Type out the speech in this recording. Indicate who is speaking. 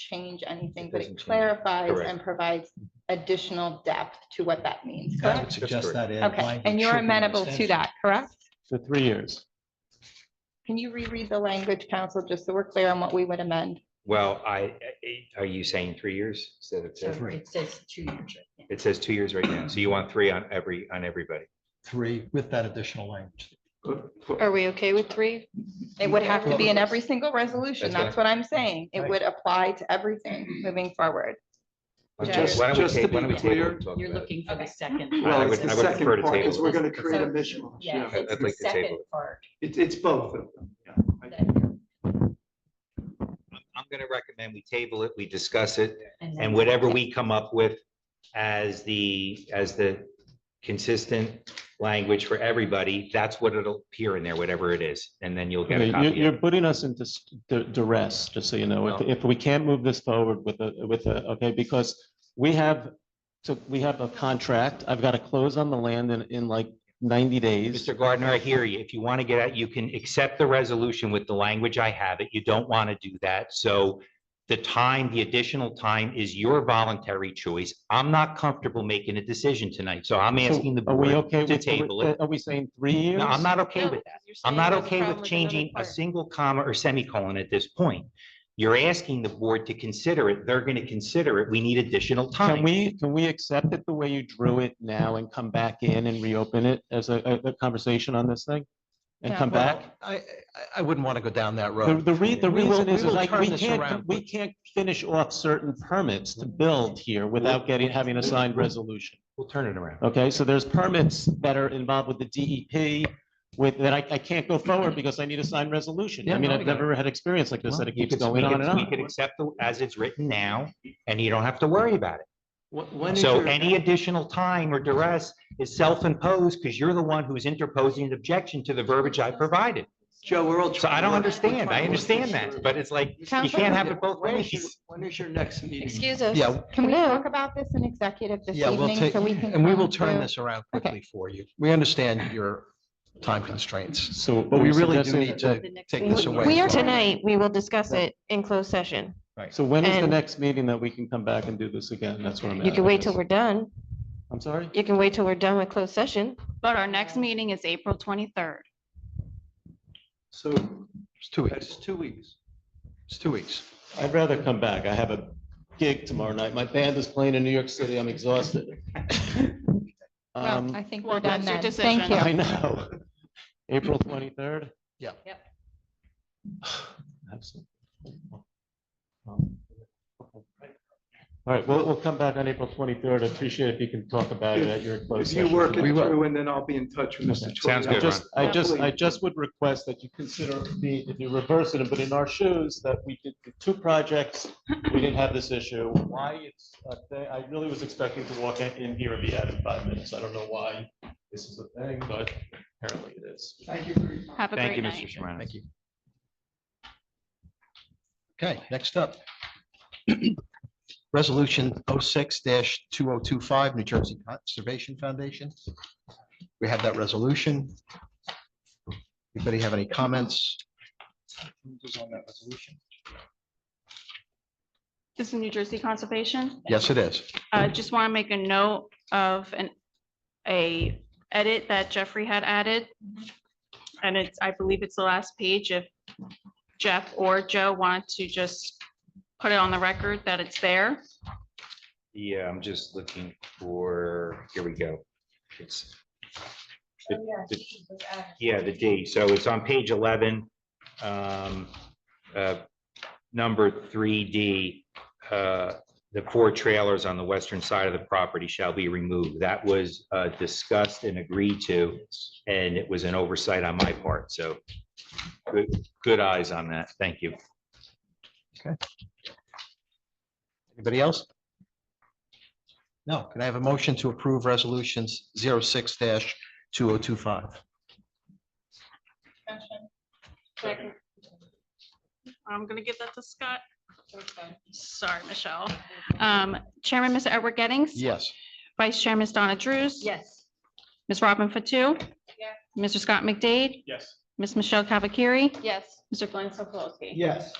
Speaker 1: change anything,
Speaker 2: It
Speaker 1: but it
Speaker 2: doesn't change.
Speaker 1: clarifies
Speaker 2: Correct.
Speaker 1: and provides additional depth to what that means,
Speaker 2: I
Speaker 1: correct?
Speaker 2: would suggest
Speaker 3: Suggest that.
Speaker 2: that.
Speaker 3: add
Speaker 1: Okay,
Speaker 3: language
Speaker 1: and you're
Speaker 3: should be an
Speaker 1: amenable to
Speaker 3: extension.
Speaker 1: that, correct?
Speaker 4: So three years.
Speaker 1: Can you reread the language, council, just so we're clear on what we would amend?
Speaker 2: Well, I, I- are you saying three years instead of
Speaker 5: So
Speaker 2: two?
Speaker 3: Three.
Speaker 5: it says two years. right there.
Speaker 2: It says two years right now. So you want three on every, on everybody.
Speaker 3: Three with that additional language.
Speaker 1: Are we okay with three? It would have to be in every single resolution.
Speaker 2: That's what I-
Speaker 1: That's what I'm saying. It
Speaker 3: Right.
Speaker 1: would apply to everything moving forward.
Speaker 2: Why
Speaker 1: Just-
Speaker 2: don't we
Speaker 6: just to
Speaker 2: table- why
Speaker 6: be
Speaker 2: don't we table
Speaker 6: clear,
Speaker 2: and talk
Speaker 5: You're
Speaker 2: about it?
Speaker 5: looking for the second.
Speaker 2: I
Speaker 6: Well,
Speaker 5: part.
Speaker 6: it's
Speaker 2: would-
Speaker 6: the
Speaker 2: I would prefer to
Speaker 6: second part,
Speaker 2: table
Speaker 6: because we're
Speaker 5: this.
Speaker 6: gonna create a
Speaker 5: So-
Speaker 6: mishmash,
Speaker 5: Yeah,
Speaker 6: yeah.
Speaker 2: I'd
Speaker 5: it's the
Speaker 2: like to table
Speaker 5: second
Speaker 2: it.
Speaker 5: part.
Speaker 6: It's, it's both of them, yeah.
Speaker 5: that-
Speaker 2: I'm- I'm going to recommend we table it, we discuss it,
Speaker 5: then-
Speaker 2: and whatever we come up with as the, as the consistent language for everybody, that's what it'll appear in there, whatever it is, and then you'll get a
Speaker 4: Okay, You're,
Speaker 2: copy.
Speaker 4: you're
Speaker 2: of it. Oh.
Speaker 4: putting us into s- du- duress, just so you know, if,
Speaker 2: No.
Speaker 4: if we can't move this forward with a, with a, okay, because we have, so we have a contract, I've got to close on the land in, in like ninety days.
Speaker 2: Mr. Gardner, I hear you. If you want to get out, you can accept the resolution with the language I have it. You don't want to do that. So the time, the additional time is your voluntary choice. I'm not comfortable making a decision tonight, so I'm
Speaker 4: So
Speaker 2: asking the
Speaker 4: Are we
Speaker 2: board
Speaker 4: okay
Speaker 2: to
Speaker 4: with, the-
Speaker 2: table it.
Speaker 4: are we saying three years?
Speaker 2: No, I'm not okay with that. I'm not okay with changing a single comma or semicolon at this point. You're asking the board to consider it. They're going to consider it. We need additional
Speaker 4: Can
Speaker 2: time.
Speaker 4: we, can we accept it the way you drew it now and come back in and reopen it as a, a- a conversation on this thing? And
Speaker 1: Yeah.
Speaker 4: come back?
Speaker 3: I, I- I wouldn't want to go down that
Speaker 4: The,
Speaker 3: road.
Speaker 4: the re, the
Speaker 3: We will-
Speaker 4: reason is,
Speaker 3: we
Speaker 4: is
Speaker 3: will
Speaker 4: like,
Speaker 3: turn
Speaker 4: we
Speaker 3: this
Speaker 4: can't,
Speaker 3: around.
Speaker 4: we can't finish off certain permits to build here without getting, having a signed resolution.
Speaker 2: We'll turn it around.
Speaker 4: Okay, so there's permits that are involved with the DEP with, that I, I can't go forward because I need a signed resolution. I
Speaker 3: Yeah,
Speaker 4: mean,
Speaker 3: no,
Speaker 4: I've
Speaker 3: we got it.
Speaker 4: never had experience like this that it
Speaker 2: You
Speaker 4: keeps
Speaker 2: could- we
Speaker 4: going on
Speaker 2: could-
Speaker 4: and
Speaker 2: We could
Speaker 4: on.
Speaker 2: accept the- as it's written now, and you don't have to worry about it.
Speaker 3: When is
Speaker 2: So
Speaker 3: your-
Speaker 2: any additional time or duress is self-imposed because you're the one who's interposing an objection to the verbiage I provided.
Speaker 3: Joe, we're all.
Speaker 2: So I don't
Speaker 3: trying to work- we're
Speaker 2: understand. I
Speaker 3: trying to work
Speaker 2: understand
Speaker 3: this
Speaker 2: that,
Speaker 3: through.
Speaker 2: but it's like,
Speaker 3: You
Speaker 1: can't
Speaker 2: have it both
Speaker 3: When is your-
Speaker 2: ways.
Speaker 3: When is your next meeting?
Speaker 1: Excuse us.
Speaker 3: Yeah.
Speaker 1: Can we talk about this in executive this
Speaker 3: Yeah, we'll
Speaker 1: evening?
Speaker 3: take,
Speaker 1: so we can
Speaker 3: and we
Speaker 1: come
Speaker 3: will turn
Speaker 1: through-
Speaker 3: this around
Speaker 1: Okay.
Speaker 3: quickly for you. We understand your time constraints,
Speaker 4: So.
Speaker 3: but we
Speaker 4: we're
Speaker 3: really do
Speaker 4: suggesting-
Speaker 3: need to
Speaker 5: The next
Speaker 3: take
Speaker 5: meeting.
Speaker 3: this away.
Speaker 7: We are
Speaker 3: as well.
Speaker 7: tonight, we will discuss it in closed session.
Speaker 4: So when is the
Speaker 7: and-
Speaker 4: next meeting that we can come back and do this again? That's what I'm.
Speaker 7: You can wait till
Speaker 4: asking.
Speaker 7: we're done.
Speaker 4: I'm sorry?
Speaker 7: You can wait till we're done with closed session.
Speaker 8: But our next meeting is April twenty-third.
Speaker 6: So
Speaker 3: It's two weeks.
Speaker 6: that's two weeks.
Speaker 3: It's two weeks.
Speaker 4: I'd rather come back. I have a gig tomorrow night. My band is playing in New York City. I'm exhausted.
Speaker 1: Well, I
Speaker 4: Um,
Speaker 1: think
Speaker 8: Well,
Speaker 1: we're done
Speaker 8: that's your
Speaker 1: then. Thank
Speaker 8: decision.
Speaker 1: you.
Speaker 4: I know. April twenty-third?
Speaker 3: Yeah.
Speaker 5: Yep.
Speaker 4: Absolutely. All right, we'll, we'll come back on April twenty-third. I appreciate if you can talk about it at your closed
Speaker 6: If you
Speaker 4: session.
Speaker 6: work it
Speaker 3: We will.
Speaker 6: through, and then I'll be in touch with Mr. Troy.
Speaker 2: Sounds
Speaker 4: I
Speaker 2: good, Ron.
Speaker 4: just, I just, I
Speaker 6: Absolutely.
Speaker 4: just would request that you consider the, if you reverse it, but in our shoes, that we did the two projects, we didn't have this issue. Why it's, a thing- I really was expecting to walk in in here and be out in five minutes. I don't know why this is a thing, but apparently it is.
Speaker 6: Thank you for your time.
Speaker 8: Have a
Speaker 2: Thank you,
Speaker 8: great
Speaker 2: Mr.
Speaker 8: night.
Speaker 2: Sherman.
Speaker 3: Thank you. Okay, next up. Resolution 6 two oh two five, New Jersey Conservation Foundation. We have that resolution. Anybody have any comments?
Speaker 8: This is New Jersey Conservation.
Speaker 3: Yes, it is.
Speaker 8: Uh, just want to make a note of an, a edit that Jeffrey had added. And it's, I believe it's the last page. If Jeff or Joe want to just put it on the record that it's there.
Speaker 2: Yeah, I'm just looking for, here we go. It's Yeah, the D. So it's on page 11. um, uh, Number 3D, uh, the four trailers on the western side of the property shall be removed. That was uh, discussed and agreed to, and it was an oversight on my part. So good, good eyes on that. Thank you.
Speaker 3: Anybody else? No, can I have a motion to approve resolutions 6 two oh two five?
Speaker 8: I'm gonna give that to Scott. Sorry, Michelle. Um, Chairman, Mr. Edward Gettings.
Speaker 3: Yes.
Speaker 8: Vice Chair, Ms. Donna Drews.
Speaker 5: Yes.
Speaker 8: Ms. Robin Fatu. Mr. Scott McDade.
Speaker 6: Yes.
Speaker 8: Ms. Michelle Cavacari.
Speaker 5: Yes.
Speaker 8: Mr. Glenn Sokolowski.
Speaker 6: Yes.